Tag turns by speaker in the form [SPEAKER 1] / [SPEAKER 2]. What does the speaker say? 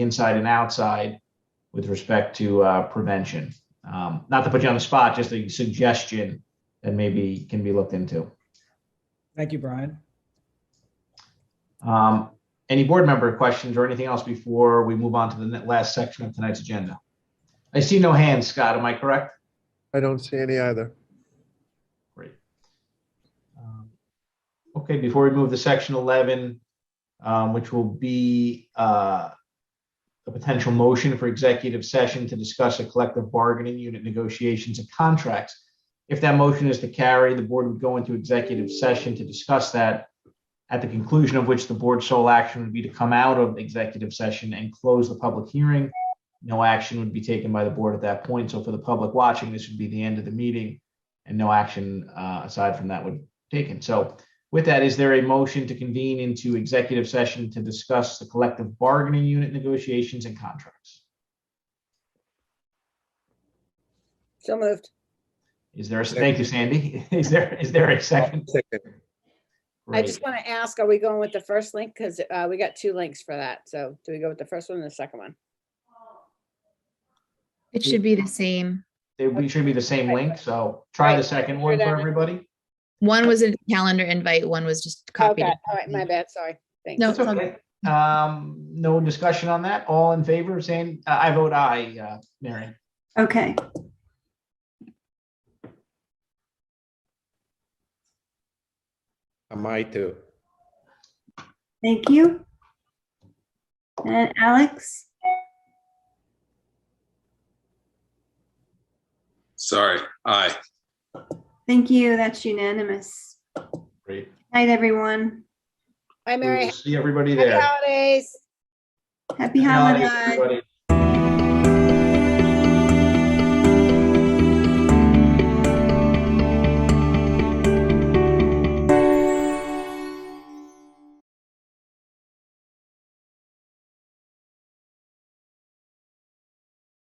[SPEAKER 1] inside and outside with respect to uh, prevention. Um, Not to put you on the spot, just a suggestion that maybe can be looked into.
[SPEAKER 2] Thank you, Brian.
[SPEAKER 1] Um, Any board member questions or anything else before we move on to the ne- last section of tonight's agenda? I see no hands, Scott, am I correct?
[SPEAKER 3] I don't see any either.
[SPEAKER 1] Great. Um, Okay, before we move to section 11, um, which will be uh, a potential motion for executive session to discuss a collective bargaining unit negotiations and contracts. If that motion is to carry, the board would go into executive session to discuss that, at the conclusion of which the board's sole action would be to come out of executive session and close the public hearing. No action would be taken by the board at that point. So for the public watching, this would be the end of the meeting and no action uh, aside from that would be taken. So with that, is there a motion to convene into executive session to discuss the collective bargaining unit negotiations and contracts?
[SPEAKER 4] So moved.
[SPEAKER 1] Is there, a thank you, Sandy. Is there, is there a second?
[SPEAKER 3] Second.
[SPEAKER 4] I
[SPEAKER 1] Great.
[SPEAKER 4] just want to ask, are we going with the first link? Because we got two links for that. So do we go with the first one and the second one?
[SPEAKER 5] It should be the same.
[SPEAKER 1] They we should be the same link, so try the second one for everybody.
[SPEAKER 5] One was a calendar invite, one was just copied.
[SPEAKER 4] Okay, all right, my bad, sorry. Thanks.
[SPEAKER 5] No,
[SPEAKER 1] That's okay. Um, no discussion on that. All in favor of saying, uh, I vote aye, uh, Mary.
[SPEAKER 6] Okay,
[SPEAKER 3] I might too.
[SPEAKER 6] thank you. And Alex,
[SPEAKER 7] Sorry, aye.
[SPEAKER 6] thank you. That's unanimous.
[SPEAKER 1] Great.
[SPEAKER 6] Night, everyone.
[SPEAKER 4] Hi,
[SPEAKER 1] We will
[SPEAKER 4] Mary.
[SPEAKER 1] See everybody
[SPEAKER 4] Happy
[SPEAKER 1] there.
[SPEAKER 4] holidays.
[SPEAKER 6] Happy
[SPEAKER 1] Happy holidays,
[SPEAKER 6] holidays.
[SPEAKER 4] holidays.
[SPEAKER 1] everybody.